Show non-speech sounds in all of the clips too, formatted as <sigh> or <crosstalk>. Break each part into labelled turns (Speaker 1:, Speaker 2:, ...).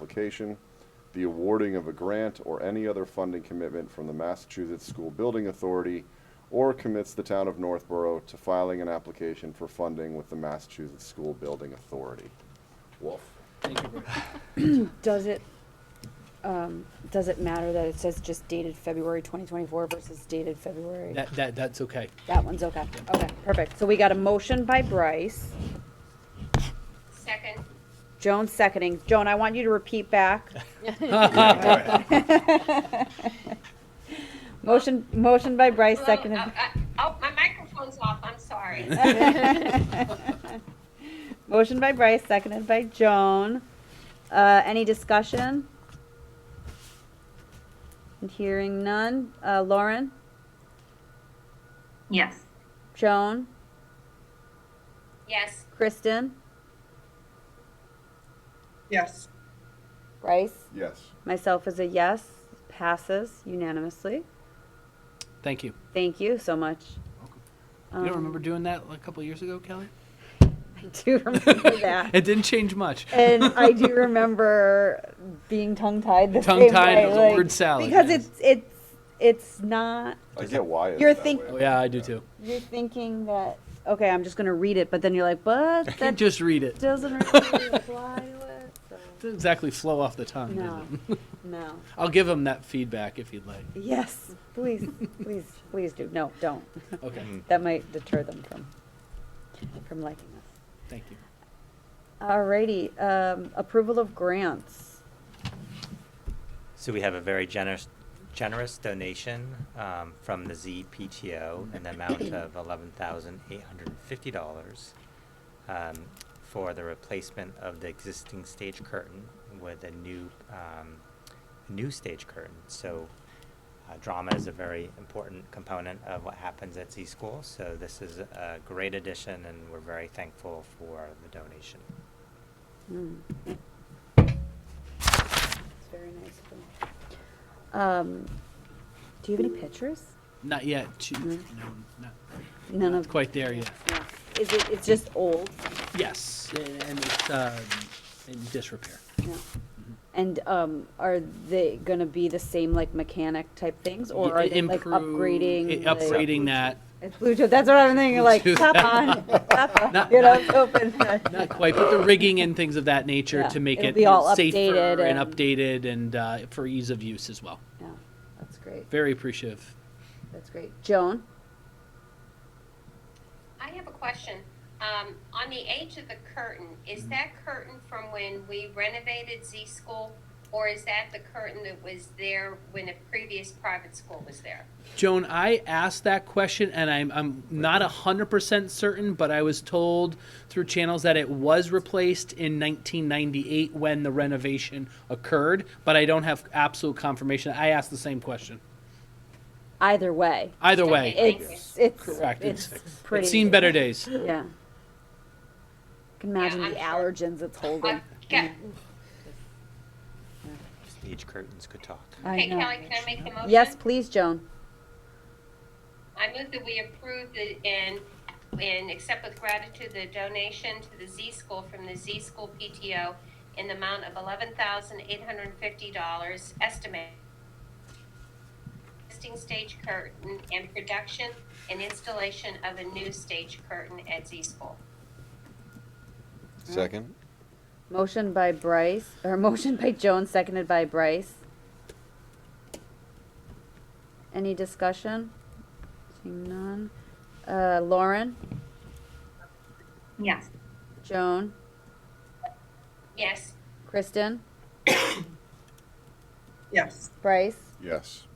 Speaker 1: application, the awarding of a grant or any other funding commitment from the Massachusetts School Building Authority, or commits the town of Northborough to filing an application for funding with the Massachusetts School Building Authority. Wolf.
Speaker 2: Thank you, Rick.
Speaker 3: Does it, um, does it matter that it says just dated February twenty twenty-four versus dated February?
Speaker 2: That, that, that's
Speaker 3: <laughs>
Speaker 2: okay. <laughs>
Speaker 3: That one's okay, okay, perfect. So we got a motion by Bryce,
Speaker 4: Second.
Speaker 3: Joan seconding. Joan, I want you to repeat back. <laughs> Motion, motion by Bryce,
Speaker 4: Hello,
Speaker 3: seconded.
Speaker 4: uh, uh, Oh, my microphone's off, I'm sorry.
Speaker 3: <laughs> Motion by Bryce, seconded by Joan. Uh, any discussion? Hearing none. Uh, Lauren,
Speaker 4: Yes.
Speaker 3: Joan,
Speaker 4: Yes,
Speaker 3: Kristen,
Speaker 5: Yes.
Speaker 3: Bryce,
Speaker 1: Yes.
Speaker 3: myself is a yes. Passes unanimously.
Speaker 2: Thank you.
Speaker 3: Thank you so much.
Speaker 2: You don't remember
Speaker 3: Um,
Speaker 2: doing that a couple years ago,
Speaker 3: <laughs>
Speaker 2: Kelly?
Speaker 3: I do
Speaker 2: <laughs>
Speaker 3: remember that.
Speaker 2: It didn't change much.
Speaker 3: and
Speaker 2: <laughs>
Speaker 3: I do remember being tongue tied the same
Speaker 2: Tongue-tied
Speaker 3: way,
Speaker 2: with the
Speaker 3: like,
Speaker 2: word salad,
Speaker 3: because
Speaker 2: yes.
Speaker 3: it's it's it's not
Speaker 1: I get why it's
Speaker 3: You're
Speaker 1: that
Speaker 3: think-
Speaker 2: Oh,
Speaker 1: way.
Speaker 2: yeah, I do too.
Speaker 3: you're thinking that okay I'm just gonna read it but then you're like but
Speaker 2: I
Speaker 3: that
Speaker 2: can't just read it. <laughs>
Speaker 3: doesn't really apply to it so.
Speaker 2: Doesn't exactly flow off the tongue,
Speaker 3: no
Speaker 2: does it? <laughs>
Speaker 3: no
Speaker 2: I'll give him that feedback if you'd like.
Speaker 3: yes please please please do no don't <laughs>
Speaker 2: Okay,
Speaker 3: that might deter them from from liking us
Speaker 2: thank you.
Speaker 3: alrighty um, approval of grants
Speaker 6: So we have a very generous, generous donation um, from the ZPTO in the amount of eleven thousand eight hundred and fifty dollars um, for the replacement of the existing stage curtain with a new, um, new stage curtain. So uh, drama is a very important component of what happens at Z School. So this is a great addition, and we're very thankful for the donation.
Speaker 3: Mm. It's very nice of them. Um, do you have any pictures?
Speaker 2: Not yet. She- No,
Speaker 3: Mm.
Speaker 2: not
Speaker 3: None
Speaker 2: not
Speaker 3: of.
Speaker 2: quite there yet.
Speaker 3: Yeah. Is it, it's just old?
Speaker 2: Yes, and and it's um, in disrepair.
Speaker 3: No. And, um, are they gonna be the same like mechanic type things or are
Speaker 2: It
Speaker 3: they like
Speaker 2: improve-
Speaker 3: upgrading?
Speaker 2: it-
Speaker 3: like-
Speaker 2: Upgrading that,
Speaker 3: It's Bluetooth, that's what I'm thinking, like,
Speaker 2: Bluetooth. <laughs>
Speaker 3: tap on, tap on,
Speaker 2: Not-
Speaker 3: you know, it's open.
Speaker 2: not quite, but the rigging and things of that nature
Speaker 3: Yeah,
Speaker 2: to make
Speaker 3: it'll
Speaker 2: it
Speaker 3: be all
Speaker 2: safer
Speaker 3: updated
Speaker 2: and
Speaker 3: and-
Speaker 2: updated and uh, for ease of use as well.
Speaker 3: Yeah, That's great,
Speaker 2: Very appreciative.
Speaker 3: that's great. Joan?
Speaker 4: I have a question. Um, on the age of the curtain, is that curtain from when we renovated Z School? Or is that the curtain that was there when a previous private school was there?
Speaker 2: Joan, I asked that question and I'm, I'm not 100% certain, but I was told through channels that it was replaced in 1998 when the renovation occurred, but I don't have absolute confirmation. I asked the same question.
Speaker 3: Either way,
Speaker 2: Either way,
Speaker 4: Okay. Thank
Speaker 3: it's, it's,
Speaker 2: Correct,
Speaker 3: it's
Speaker 2: it's-
Speaker 3: pretty.
Speaker 2: it's seen better days.
Speaker 3: Yeah. Can imagine
Speaker 4: I'm
Speaker 3: the
Speaker 4: sure.
Speaker 3: allergens it's holding.
Speaker 4: I've got-
Speaker 6: Stage curtains could talk.
Speaker 3: I
Speaker 4: Okay,
Speaker 3: know.
Speaker 4: Kelly, can I make the motion?
Speaker 3: Yes, please, Joan.
Speaker 4: I move that we approve the, and, and accept with gratitude the donation to the Z School from the Z School PTO in the amount of eleven thousand eight hundred and fifty dollars estimated. Existing stage curtain and production and installation of a new stage curtain at Z School.
Speaker 1: Second?
Speaker 3: Motion by Bryce, or motion by Joan, seconded by Bryce. Any discussion? Seeing none. Uh, Lauren,
Speaker 4: Yes.
Speaker 3: Joan,
Speaker 4: Yes,
Speaker 3: Kristen,
Speaker 5: Yes.
Speaker 3: Bryce,
Speaker 1: Yes.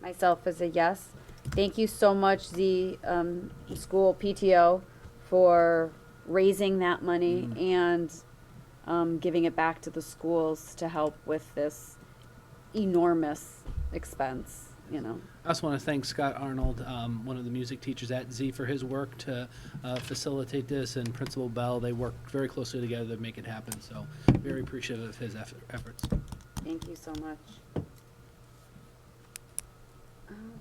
Speaker 3: myself is a yes. Thank you so much, the, um, school PTO for raising that money and, um, giving it back to the schools to help with this enormous expense, you know.
Speaker 2: I also want to thank Scott Arnold, um, one of the music teachers at Z, for his work to uh, facilitate this, and Principal Bell. They worked very closely together to make it happen, so very appreciative of his eff- efforts.
Speaker 3: Thank you so much.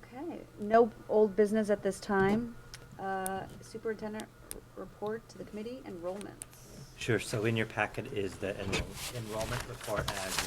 Speaker 3: Okay, no old business at this time. Uh, Superintendent r- report to the committee, enrollments.
Speaker 6: Sure, so in your packet is the enroll- enrollment report as